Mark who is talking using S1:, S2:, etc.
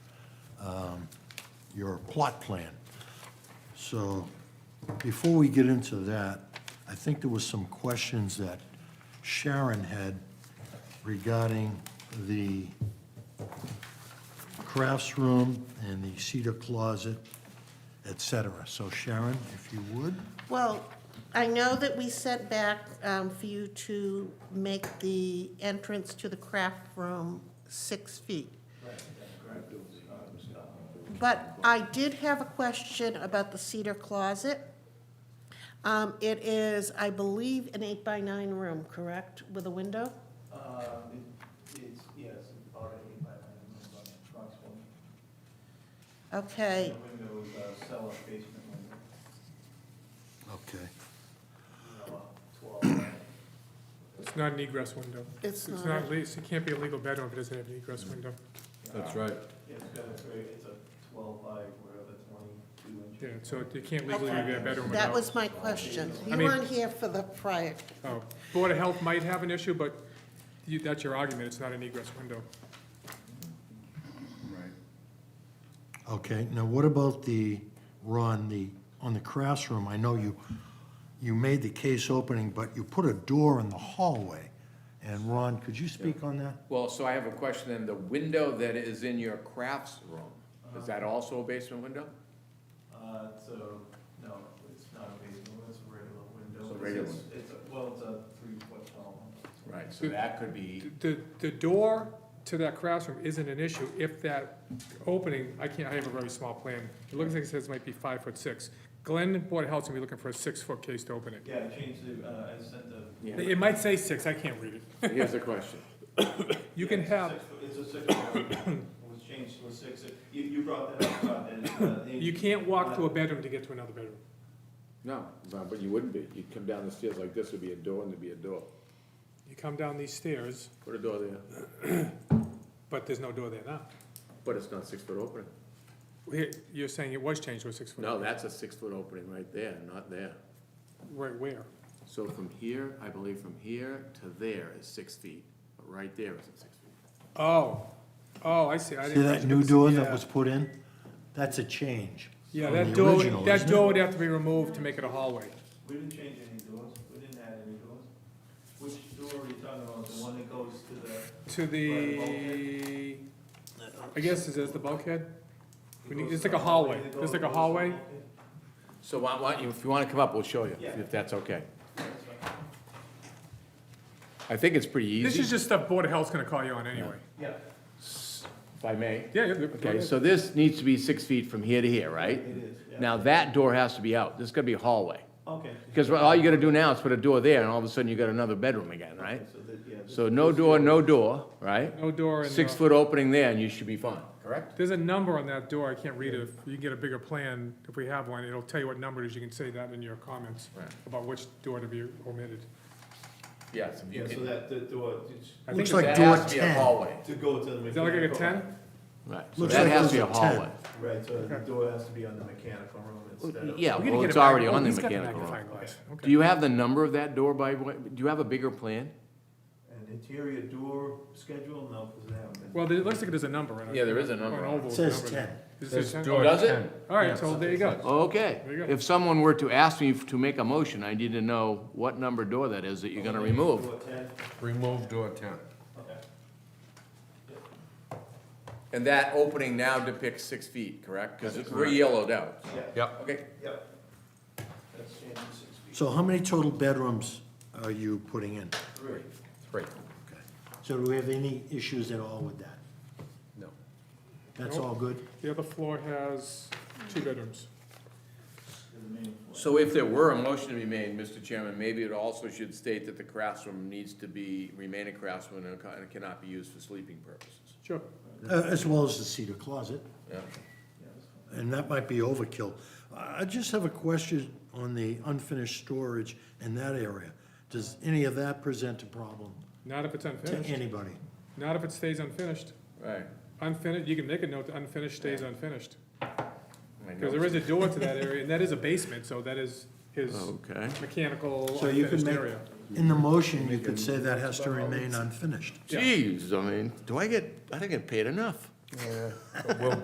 S1: your plot plan. So before we get into that, I think there was some questions that Sharon had regarding the crafts room and the cedar closet, et cetera. So Sharon, if you would,
S2: Well, I know that we set back um, for you to make the entrance to the craft room six feet. But I did have a question about the cedar closet. Um, It is, I believe, an eight-by-nine room, correct, with a window?
S3: Uh, it- it's, yes, it's already by then, it's on the trucks, one.
S2: Okay,
S3: The window is a cellar basement window,
S1: okay.
S3: you know, a uh, twelve. by-
S4: It's not an egress window.
S2: It's
S4: It's
S2: not.
S4: not, le- it can't be a legal bedroom if it doesn't have an egress window.
S5: That's right.
S3: It's got a very, it's a twelve by whatever, twenty-two inch.
S4: Yeah, so it can't legally
S2: Okay.
S4: be a bedroom without.
S2: that was my question. You
S4: mean-
S2: weren't here for the prior,
S4: Oh, Board of Health might have an issue, but you, that's your argument, it's not an egress window.
S1: Okay, now what about the, Ron, the, on the classroom, I know you, you made the case opening, but you put a door in the hallway. And Ron, could you speak on that?
S6: Well, so I have a question then. The window that is in your crafts room, is that
S5: Uh-huh.
S6: also a basement window?
S3: Uh, so, no, it's not a basement, it's a regular window.
S6: It's a regular
S3: It's- It's, a- well, it's a three foot tall one.
S6: Right, so that could be,
S4: The, the door to that classroom isn't an issue if that opening, I can't, I have a very small plan. It looks like it says it might be five foot six. Glenn and Board of Health's gonna be looking for a six foot case to open it.
S3: Yeah, I changed the, uh, I sent the.
S4: It might say six, I can't read it.
S6: here's the question.
S4: You
S3: Yeah,
S4: can
S3: it's a
S4: have,
S3: six foot- It's a six foot, window. it was changed to a six, you, you brought that up, uh, about that. it's not-
S4: you can't walk to a bedroom to get to another bedroom.
S5: No, no, but you wouldn't be. You'd come down the stairs like this, there'd be a door and there'd be a door.
S4: You come down these stairs,
S5: Put a door there,
S4: but there's no door there now.
S5: but it's not six foot opening.
S4: Here, You're saying it was changed to a six foot?
S5: No, that's a six foot opening right there, not there.
S4: Right where?
S5: So from here, I believe from here to there is six feet, but right there isn't six feet.
S4: Oh, oh, I see. I
S1: See
S4: didn't-
S1: that new door that
S4: Yeah.
S1: was put in? That's a change.
S4: Yeah,
S1: from
S4: that
S1: the
S4: door,
S1: original,
S4: would- that
S1: isn't it?
S4: door would have to be removed to make it a hallway.
S3: We didn't change any doors, we didn't add any doors. Which door are you talking about, the one that goes to the,
S4: To the, I guess, is this the bulkhead? We need- it's like a hallway. It's like a hallway?
S6: So why, why, if you wanna come up, we'll show you,
S3: Yeah.
S6: if that's okay. I think it's pretty easy.
S4: This is just stuff Board of Health's gonna call you on anyway.
S3: Yeah,
S6: If I may.
S4: Yeah, yeah. go
S6: Okay,
S4: ahead.
S6: so this needs to be six feet from here to here, right?
S3: it is, yeah.
S6: Now, that door has to be out. This is gonna be a hallway.
S3: Okay.
S6: Because all you gotta do now is put a door there, and all of a sudden you got another bedroom again, right?
S3: So that, yeah, this-
S6: So no door, no door, right?
S4: No door and
S6: Six
S4: no,
S6: foot opening there, and you should be fine, correct?
S4: there's a number on that door. I can't read it. If you can get a bigger plan, if we have one, it'll tell you what number it is. You can say that in your comments
S6: Right.
S4: about which door to be omitted.
S6: Yes.
S3: Yeah, so that, the door, it's-
S4: I
S1: Looks
S4: think,
S1: like
S6: That
S1: door
S6: has to be a
S1: 10.
S6: hallway.
S3: to go to the.
S4: is that like a
S3: mechanical-
S4: ten?
S6: Right, so
S1: Looks
S6: that
S1: like
S6: has to be a
S1: those are 10.
S6: hallway.
S3: Right, so the
S4: Okay.
S3: door has to be on the mechanical room instead of.
S6: Yeah,
S4: We're gonna
S6: well,
S4: get
S6: it's
S4: a mag-
S6: already
S4: oh,
S6: on the
S4: he's got a
S6: mechanical room.
S4: magnifying glass. Okay.
S6: Do you have the number of that door by, way- do you have a bigger plan?
S3: An interior door schedule, no, because they haven't been.
S4: Well, there- it looks like there's a number. and
S6: Yeah, there is a
S4: on
S6: number.
S4: oval,
S1: It
S4: it's
S1: says
S4: numbered.
S1: 10.
S4: Is it ten?
S6: Oh, Does it?
S4: All right, so there you go.
S6: Okay.
S4: There you go.
S6: If someone were to ask me to make a motion, I need to know what number door that is that you're gonna remove.
S3: Door ten,
S5: Remove door ten.
S3: okay.
S6: And that opening now depicts six feet, correct? Because we're yellowed out.
S3: Yeah.
S5: Yep.
S6: Okay.
S3: Yep. That's changed to six feet.
S1: So how many total bedrooms are you putting in?
S3: Three.
S5: Three.
S1: Okay. So do we have any issues at all with that?
S5: No.
S1: That's all good?
S4: The other floor has two bedrooms.
S3: to the main floor.
S6: So if there were a motion to be made, Mr. Chairman, maybe it also should state that the craftsroom needs to be, remain a craftsroom and ca- and cannot be used for sleeping purposes.
S4: Sure.
S1: Uh, As well as the cedar closet?
S6: Yeah.
S3: Yeah, that's fine.
S1: And that might be overkill. I I just have a question on the unfinished storage in that area. Does any of that present a problem
S4: Not if it's
S1: to
S4: unfinished.
S1: anybody?
S4: Not if it stays unfinished.
S6: Right.
S4: Unfinished, you can make a note, that unfinished stays unfinished.
S6: I know.
S4: Because there is a door to that area, and that is a basement, so that is his
S6: Okay.
S4: mechanical
S1: So you could
S4: unfinished
S1: make,
S4: area.
S1: in the motion, you could say that has to remain unfinished.
S6: Jeez, I mean, do I get, I don't get paid enough.